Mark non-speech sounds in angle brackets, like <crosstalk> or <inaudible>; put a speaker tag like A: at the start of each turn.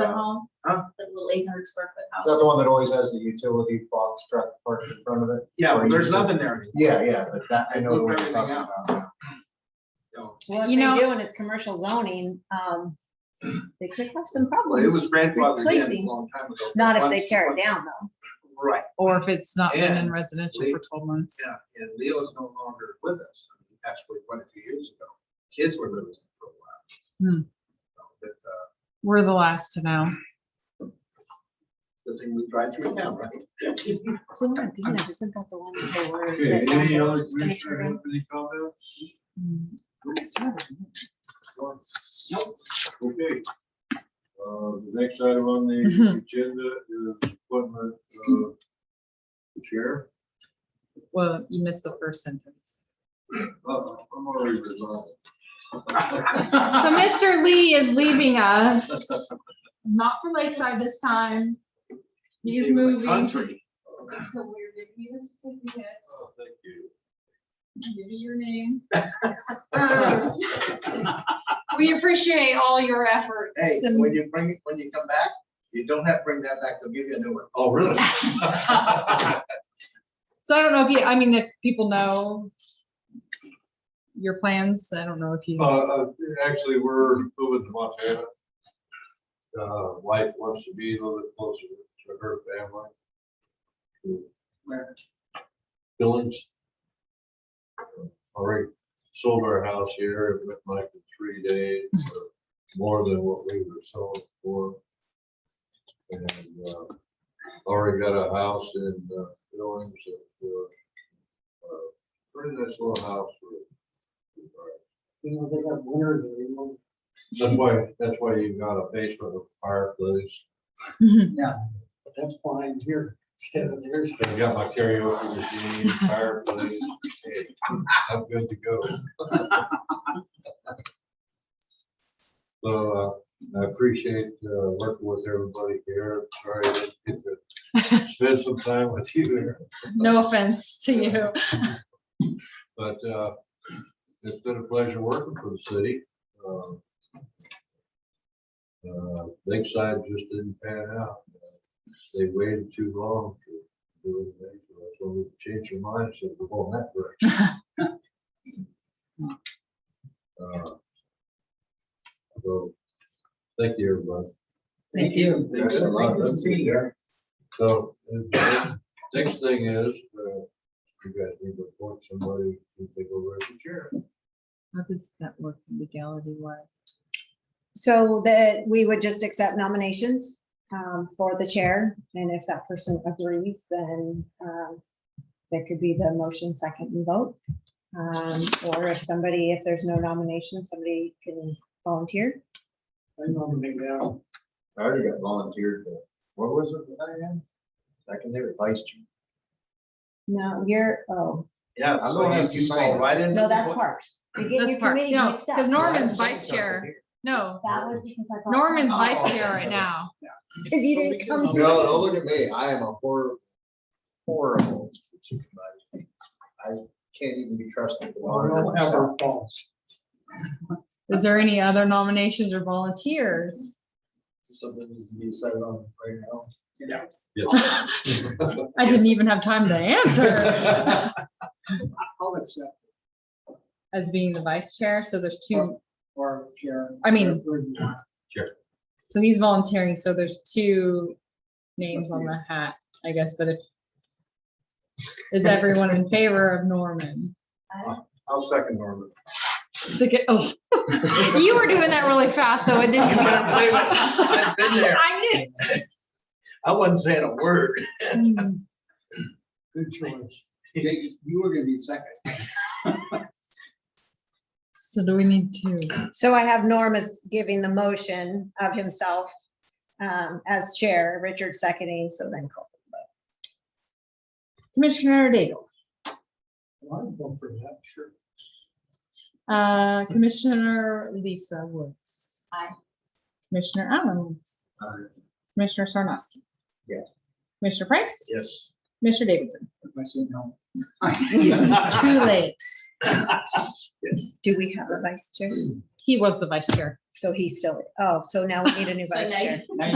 A: home.
B: Huh?
A: The little eight hundred square foot house.
C: Is that the one that always has the utility box truck parked in front of it?
B: Yeah, well, there's nothing there.
C: Yeah, yeah, but that, I know the one
B: Moved
C: you're talking
B: everything out.
C: about.
B: So,
D: Well, if
E: You know-
D: they do and it's commercial zoning,
B: <clears throat>
D: um, they could have some
B: Well, it
D: problems.
B: was grandfathered in
D: Replacing.
B: a long time ago.
D: Not if they
B: Once-
D: tear it
B: once-
D: down though.
B: Right,
E: Or if it's not been in
B: And
E: residential
B: we-
E: for twelve months.
B: yeah, and Leo's no longer with us. He passed away quite a few years ago. Kids were living for a while.
E: Hmm.
B: So, but, uh,
E: We're the last to know.
B: The thing we drive through now, right?
D: Clementina, isn't that the one that they were?
F: Okay,
D: that
F: any
D: Apple
F: other
D: was gonna
F: commissioner
D: turn
F: have
D: in?
F: any comments? Okay. Uh, the next item on the
E: Mhm.
F: agenda is appointment of
B: <clears throat>
F: the chair.
E: <laughs> Well, you missed the first sentence.
F: Uh, I'm already resigned.
E: <laughs> So
B: So
E: Mr. Lee is leaving us, not for Lakeside this time. He's
B: Leaving the
E: moving.
B: country.
E: So we're giving you the certificates.
F: Oh, thank you.
B: <laughs>
E: Give you your name. We appreciate all your efforts.
B: Hey,
E: and-
B: when you bring, it when you come back, you don't have to bring that back. They'll give you a new one. <laughs>
F: Oh, really?
E: So I don't know if you, I mean, if people know your plans, I don't know if you.
F: Uh, uh, actually, we're moving to Montana. Uh, wife wants to be a little bit closer to her family.
B: Where?
F: Billings. Already sold our house here, it went like in three days, or more than what we were selling for. And, uh, already got a house in uh, Billings, that, uh, uh, pretty nice little house. for- uh, that's why, that's why you've got a basement with a fireplace.
G: That's fine here, instead of there.
F: I've got my karaoke machine, fireplace. Hey, I'm good to go. So uh, I appreciate uh, working with everybody here. Sorry I didn't get to spend some time with you here.
E: <laughs> No offense to you.
F: But uh, it's been a pleasure working for the city. Um, uh, Lakeside just didn't pan out. They waited too long to do anything. So we changed our minds and we're going that direction.
E: <laughs>
F: Uh, So, thank you, everybody.
E: Thank you.
F: Thanks a lot. That's good, Derek. So, uh, next thing is, uh, you guys need to appoint somebody to take over as the chair.
E: How does that work legality wise?
D: So that we would just accept nominations, um, for the chair. And if that person agrees, then, um, there could be the motion second and vote. Um, or if somebody, if there's no nomination, somebody can volunteer.
G: I nominate Al.
C: I already got volunteered, but what was it that I had? Secondary vice chair.
D: No, you're, oh,
B: Yeah,
C: I'm
B: so
C: gonna
B: you
C: have to
B: just
C: sign
B: fall
C: it.
B: right into.
D: no,
B: the
D: that's
B: book.
D: parks. You get
E: That's
D: your
E: parts,
D: committee
E: no,
D: mixed up.
E: because Norman's
C: Well, I
E: vice chair. No,
D: That was because I. brought <laughs>
E: Norman's
D: parks.
E: vice
G: Oh.
E: chair right now.
D: Because you didn't come.
C: No, don't look at me. I am a horrible, horrible supervisor. I can't even be trusted. to monitor
G: Don't have
C: myself.
G: our faults.
E: Is there any other nominations
G: <laughs>
E: or volunteers?
C: Something needs to be decided on right now.
E: Yes.
F: Yes.
E: I didn't even have time to answer
G: <laughs> I'll accept
E: as being the vice chair. So there's two,
G: or chair.
E: I mean-
G: Well,
E: so he's volunteering. So there's two names on the hat, I guess, but if is everyone in favor of Norman?
B: I'll second Norman.
E: It's like, oh, <laughs> you were doing that really fast, so it didn't. <laughs>
B: You better believe it. <laughs> I've been there.
E: I knew
B: I wasn't saying a word.
E: Mm,
G: Good choice. Jake, You were gonna be second.
E: So do we need to,
D: So I have Norm as giving the motion of himself um, as chair, Richard seconding, so then Cole.
E: Commissioner Daigle,
G: Well, I'd vote for
B: <laughs>
G: that, sure.
E: uh, Commissioner Lisa Woods. Aye. Commissioner Allen Woods. Commissioner Sarnoski.
C: Yes.
E: Commissioner Price.
C: Yes.
E: Commissioner Davidson.
G: If I say
B: <laughs>
G: no. <laughs>
E: <laughs> Too late.
D: Do we have a vice chair?
E: He was the vice chair.
D: So he's still, oh, so now we need a new
A: So
E: <laughs>
D: vice
A: now you-
D: chair.